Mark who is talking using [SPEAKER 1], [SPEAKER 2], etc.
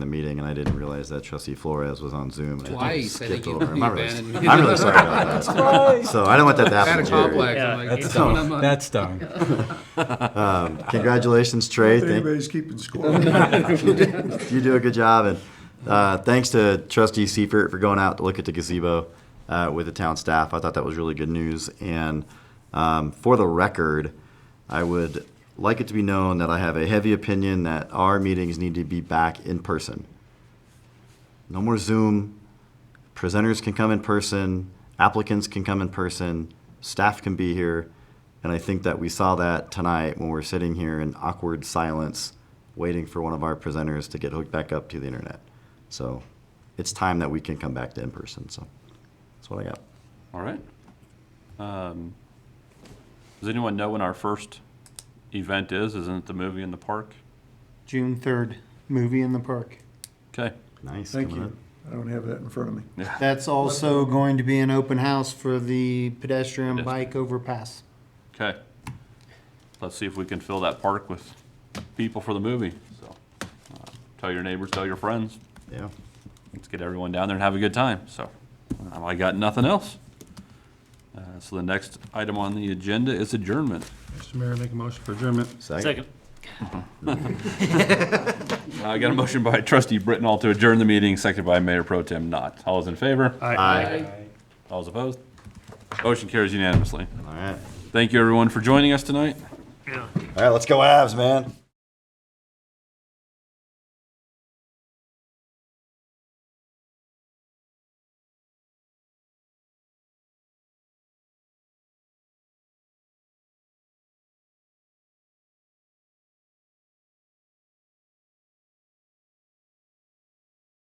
[SPEAKER 1] the meeting, and I didn't realize that trustee Flores was on Zoom. and I
[SPEAKER 2] Twice, I
[SPEAKER 1] skipped
[SPEAKER 2] think you-
[SPEAKER 1] over him.
[SPEAKER 2] you
[SPEAKER 1] I'm really-
[SPEAKER 2] abandoned me.
[SPEAKER 1] I'm really sorry about that. So I don't want that to
[SPEAKER 2] Had
[SPEAKER 1] happen
[SPEAKER 2] a
[SPEAKER 1] to you.
[SPEAKER 2] complex.
[SPEAKER 3] Yeah,
[SPEAKER 2] I'm like,
[SPEAKER 3] that's
[SPEAKER 2] it's coming up
[SPEAKER 3] dumb.
[SPEAKER 2] on-
[SPEAKER 3] That's dumb.
[SPEAKER 1] Um, Congratulations, Trey.
[SPEAKER 4] If
[SPEAKER 1] Thank-
[SPEAKER 4] anybody's keeping score.
[SPEAKER 1] you do a good job, and uh, thanks to Trustee Seifert for going out to look at the gazebo uh, with the town staff. I thought that was really good news. And um, for the record, I would like it to be known that I have a heavy opinion that our meetings need to be back in person. No more Zoom. Presenters can come in person. Applicants can come in person. Staff can be here. And I think that we saw that tonight when we're sitting here in awkward silence, waiting for one of our presenters to get hooked back up to the internet. So it's time that we can come back to in person. So that's what I got.
[SPEAKER 5] All right. Um, Does anyone know when our first event is? Isn't it the movie in the park?
[SPEAKER 6] June third, movie in the park.
[SPEAKER 5] Okay.
[SPEAKER 1] Nice.
[SPEAKER 4] Thank
[SPEAKER 1] coming
[SPEAKER 4] you. I don't have that in front of me.
[SPEAKER 6] That's also going to be an open house for the pedestrian
[SPEAKER 5] Yes.
[SPEAKER 6] bike overpass.
[SPEAKER 5] Okay. Let's see if we can fill that park with people for the movie. So, uh, tell your neighbors, tell your friends.
[SPEAKER 1] up. Yeah.
[SPEAKER 5] Let's get everyone down there and have a good time. So, um, I got nothing else. Uh, So the next item on the agenda is adjournment.
[SPEAKER 7] Mr. Mayor, make a motion for adjournment.
[SPEAKER 3] Second.
[SPEAKER 5] I got a motion by trustee Brittenall to adjourn the meeting, seconded by Mayor Pro Tem Knott. All those in favor?
[SPEAKER 1] Aye.
[SPEAKER 5] All those opposed? Motion carries unanimously.
[SPEAKER 1] All right.
[SPEAKER 5] Thank you, everyone, for joining us tonight.
[SPEAKER 1] All right. Let's go, Avs, man.